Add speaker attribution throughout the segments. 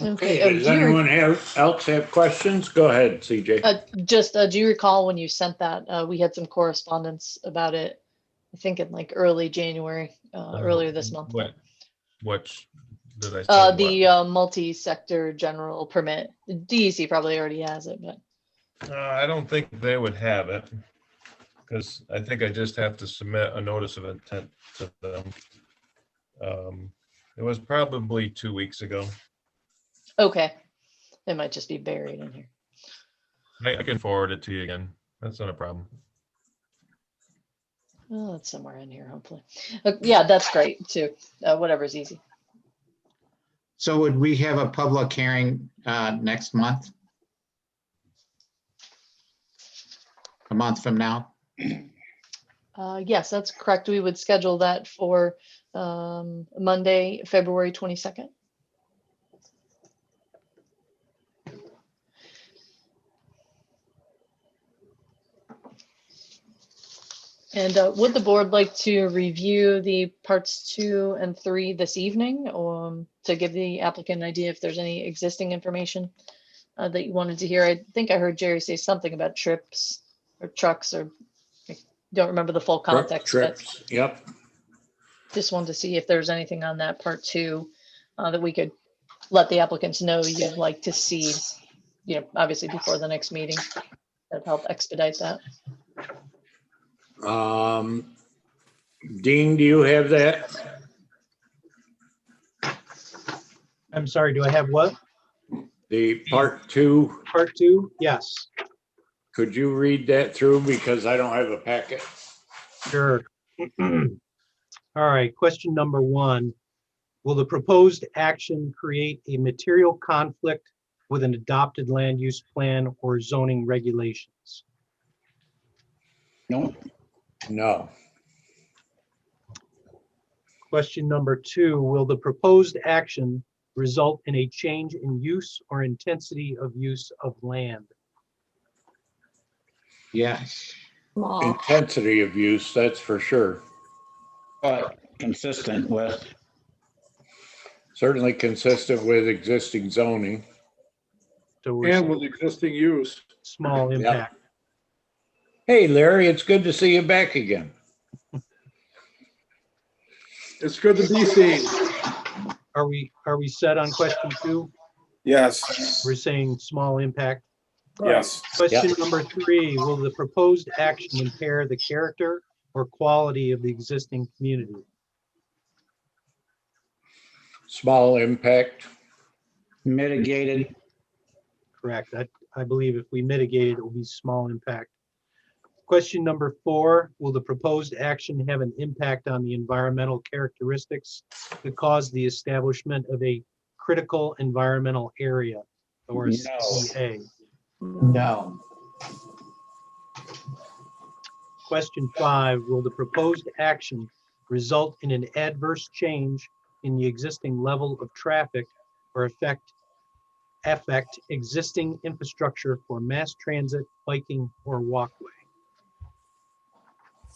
Speaker 1: Okay. uh,
Speaker 2: Does
Speaker 1: do you re-
Speaker 2: anyone have, else have questions? Go ahead, CJ.
Speaker 1: uh, Just, uh, do you recall when you sent that? Uh, We had some correspondence about it, I think in like early January, uh, earlier this month.
Speaker 3: Um, What, what's, did I? say
Speaker 1: Uh,
Speaker 3: what?
Speaker 1: The uh, multi-sector general permit, DEC probably already has it, but
Speaker 3: Uh, I don't think they would have it. Because I think I just have to submit a notice of intent to them. Um, It was probably two weeks ago.
Speaker 1: okay. It might just be buried in here.
Speaker 3: I, I can forward it to you again. That's not a problem.
Speaker 1: Oh, it's somewhere in here, hopefully. Uh, Yeah, that's great too. Uh, Whatever's easy.
Speaker 4: So would we have a public hearing uh, next month? A month from now?
Speaker 1: Uh, Yes, that's correct. We would schedule that for um, Monday, February 22nd. And uh, would the board like to review the parts two and three this evening? um, To give the applicant an idea if there's any existing information uh, that you wanted to hear? I think I heard Jerry say something about trips or trucks or, I don't remember the full context. but-
Speaker 2: Trips, yep.
Speaker 1: just wanted to see if there's anything on that part two uh, that we could let the applicants know you'd like to see, you know, obviously before the next meeting. That'd help expedite that.
Speaker 2: Um, Dean, do you have that?
Speaker 5: I'm sorry, do I have what?
Speaker 2: The part two,
Speaker 5: Part two? Yes,
Speaker 2: could you read that through? Because I don't have a packet.
Speaker 5: sure. All right, question number one. Will the proposed action create a material conflict with an adopted land use plan or zoning regulations?
Speaker 2: No,
Speaker 5: Question number two, will the proposed action result in a change in use or intensity of use of land?
Speaker 4: Yes.
Speaker 6: Small,
Speaker 2: intensity of use, that's for sure.
Speaker 7: But consistent with,
Speaker 2: Certainly consistent with existing zoning.
Speaker 5: So we're
Speaker 8: And
Speaker 5: saying
Speaker 8: with existing use.
Speaker 5: small impact.
Speaker 2: Hey, Larry, it's good to see you back again.
Speaker 8: It's good to be seen.
Speaker 5: Are we, are we set on question two?
Speaker 8: Yes,
Speaker 5: We're saying small impact.
Speaker 8: yes.
Speaker 5: Question number three, will the proposed action impair the character or quality of the existing community?
Speaker 2: Small impact.
Speaker 7: mitigated,
Speaker 5: Correct. I, I believe if we mitigate it, it will be small impact. Question number four, will the proposed action have an impact on the environmental characteristics that cause the establishment of a critical environmental area or a
Speaker 7: No.
Speaker 5: CEA?
Speaker 4: Mm-hmm. No.
Speaker 5: Question five, will the proposed action result in an adverse change in the existing level of traffic or affect, affect existing infrastructure for mass transit, biking, or walkway?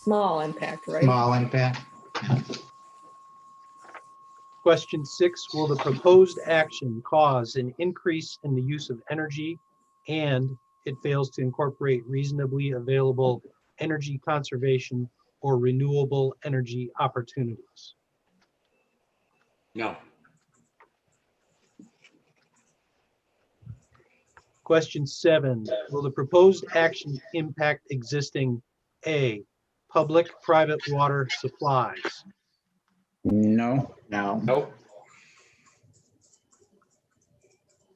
Speaker 6: small impact, right?
Speaker 4: Small impact?
Speaker 5: Question six, will the proposed action cause an increase in the use of energy? And it fails to incorporate reasonably available energy conservation or renewable energy opportunities?
Speaker 2: No.
Speaker 5: Question seven, will the proposed action impact existing A, public, private water supplies?
Speaker 7: no,
Speaker 4: No.
Speaker 2: Nope.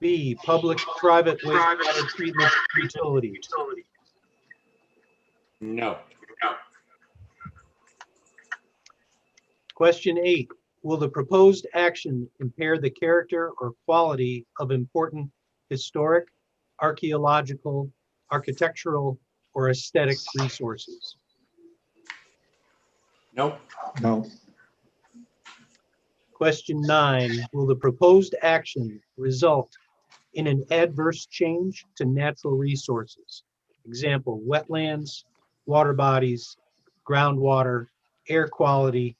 Speaker 5: B, public, private wastewater treatment utilities?
Speaker 2: No.
Speaker 5: Question eight, will the proposed action impair the character or quality of important historic, archaeological, architectural, or aesthetic resources?
Speaker 2: Nope.
Speaker 4: No.
Speaker 5: Question nine, will the proposed action result in an adverse change to natural resources? Example, wetlands, water bodies, groundwater, air quality,